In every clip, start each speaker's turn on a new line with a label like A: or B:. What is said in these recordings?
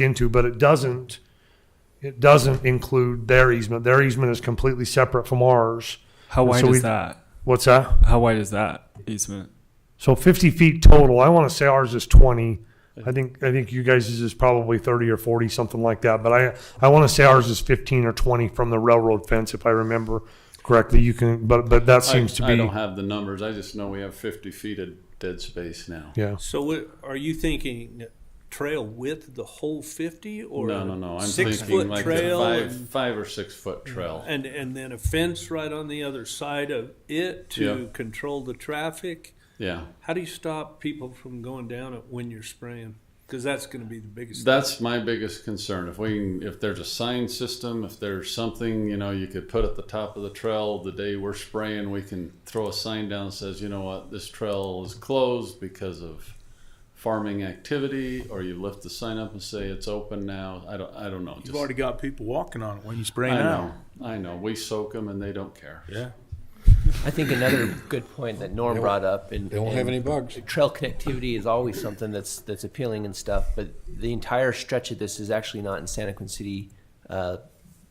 A: into, but it doesn't, it doesn't include their easement. Their easement is completely separate from ours.
B: How wide
A: So
B: is
A: we-
B: that?
A: What's that?
B: How wide is that easement?
A: So fifty feet total. I want to say ours is twenty. I think, I think you guys is probably thirty or forty, something like that. But I, I want to say ours is fifteen or twenty from the railroad fence, if I remember correctly. You can, but, but that seems to
C: I don't
A: be,
C: have the numbers. I just know we have 50 feet of dead space now.
A: yeah.
D: So what, are you thinking trail width the whole fifty or?
C: No, no, no. I'm
D: six
C: thinking
D: foot
C: like a
D: trail
C: five,
D: and-
C: five or six foot trail.
D: And, and then a fence right on the other side of it
C: Yeah.
D: to control the traffic?
C: Yeah,
D: How do you stop people from going down it when you're spraying? Cause that's gonna be the biggest.
C: that's my biggest concern. If we, can, if there's a sign system, if there's something you know you could put at the top of the trail the day we're spraying, we can throw a sign down that says, you know what, this trail is closed because of farming activity, or you lift the sign up and say it's open now. I don't, I don't know.
E: You've already got people walking on it when you spray
C: I know,
E: now.
C: I know. We soak them and they don't care.
E: Yeah.
F: I think another good point that Norm brought up and
G: They won't have
F: and
G: any bugs.
F: trail connectivity is always something that's that's appealing and stuff, but the entire stretch of this is actually not in Santa Quin City uh,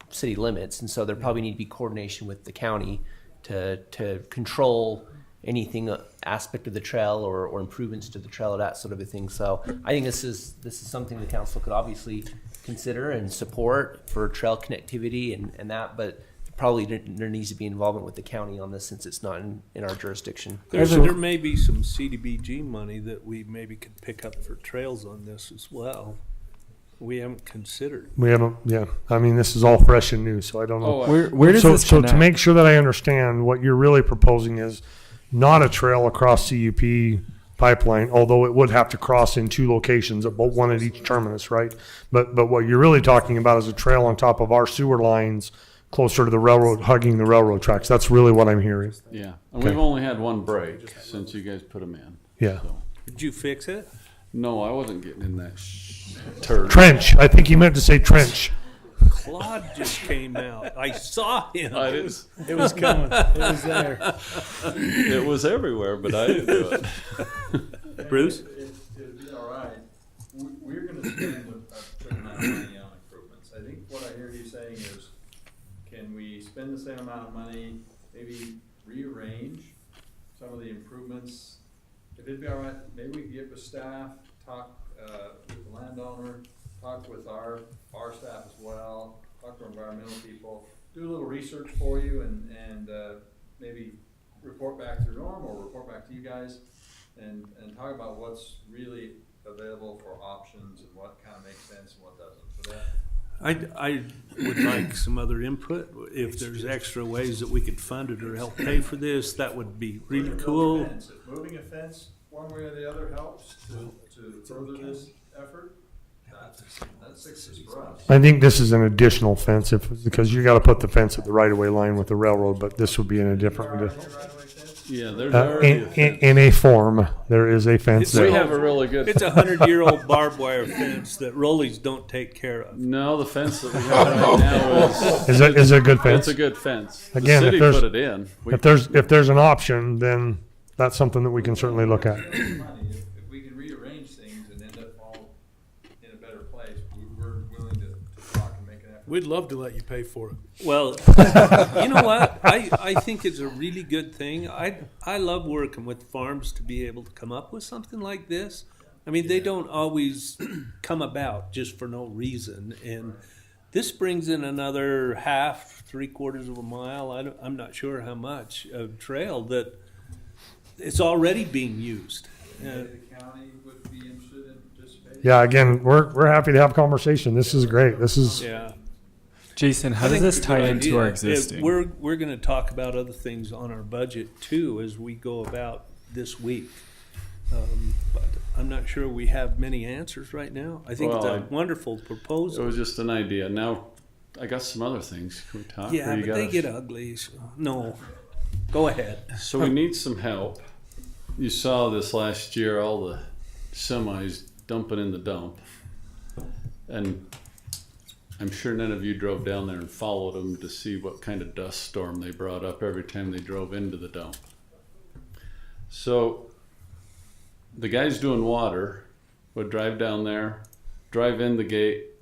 F: city limits, and so there probably need to be coordination with the county to to control anything uh, aspect of the trail or, or improvements to the trail or that sort of a thing. So I think this is this is something the council could obviously consider and support for trail connectivity and, and that, but probably there- there needs to be involvement with the county on this since it's not in, in our jurisdiction.
D: There's, there may be some CDBG money that we maybe could pick up for trails on this as well. We haven't considered.
A: We haven't, yeah. I mean, this is all fresh and new, so I don't know.
C: Oh, I-
B: Where where does
A: so,
B: this
A: so
B: connect?
A: to make sure that I understand, what you're really proposing is not a trail across CUP pipeline, although it would have to cross in two locations, but one at each terminus, right? But but what you're really talking about is a trail on top of our sewer lines, closer to the railroad, hugging the railroad tracks. That's really what I'm hearing.
C: Yeah, and
A: Okay.
C: we've only had one break since you guys put them in.
A: Yeah.
C: So-
D: Did you fix it?
C: No, I wasn't getting in that sh- turd.
A: Trench. I think he meant to say trench.
D: Claude just came out. I saw him.
C: I didn't,
E: It was coming. it was there.
C: it was everywhere, but I didn't do it.
D: Bruce?
H: It'd be all right. We- We're gonna spend a certain amount of money on improvements. I think what I hear you saying is, can we spend the same amount of money, maybe rearrange some of the improvements? If it'd be all right, maybe we could get with staff, talk, uh, with the landowner, talk with our, our staff as well, talk to environmental people, do a little research for you and, and, uh, maybe report back to Norm or report back to you guys and, and talk about what's really available for options and what kind of makes sense and what doesn't. So that,
D: I, I would like some other input. If there's extra ways that we could fund it or help pay for this, that would be really
H: Moving a
D: cool.
H: fence. If Moving a fence, one way or the other helps to, to further this effort. That's, that's success for us.
A: I think this is an additional fence if, because you got to put the fence at the right of way line with the railroad, but this would be in a different,
H: Right away fence?
C: Yeah, there's
A: uh,
C: already
A: in,
C: a
A: in,
C: fence.
A: in a form. There is a fence
D: It's-
A: there.
C: We have a really good.
D: It's a hundred-year-old barbed wire fence that rollies don't take care of.
C: no, the fence that we have right now is.
A: Is it is it a good fence?
C: It's a good fence.
A: Again, if
C: the city
A: there's-
C: put it in. We,
A: if there's if there's an option, then that's something that we can certainly look at.
H: Money, If if we can rearrange things and end up all in a better place, we- we're willing to, to talk and make an effort.
E: We'd love to let you pay for it.
D: Well, you know what? I, I think it's a really good thing. I, I love working with farms to be able to come up with something like this. I mean, they don't always come about just for no reason. And this brings in another half, three quarters of a mile, I don't, I'm not sure how much, of trail that it's already being used. Uh,
H: Maybe the county would be interested in participating.
A: Yeah, again, we're we're happy to have conversation. This is great. This is
D: yeah.
B: Jason, how
D: I
B: does
D: think
B: this
D: it's a
B: tie
D: good
B: into
D: idea.
B: our
D: It-
B: existing?
D: We're, we're gonna talk about other things on our budget too as we go about this week. Um, But I'm not sure we have many answers right now. I think it's
C: Well,
D: a
C: I-
D: wonderful
C: it
D: proposal.
C: was just an idea. Now, I got some other things. Can we talk?
D: Yeah,
C: Or you
D: but they
C: gotta-
D: get ugly, so, no. Go ahead.
C: So we need some help. You saw this last year, all the semis dumping in the dump. And I'm sure none of you drove down there and followed them to see what kind of dust storm they brought up every time they drove into the dump. So the guys doing water would drive down there, drive in the gate,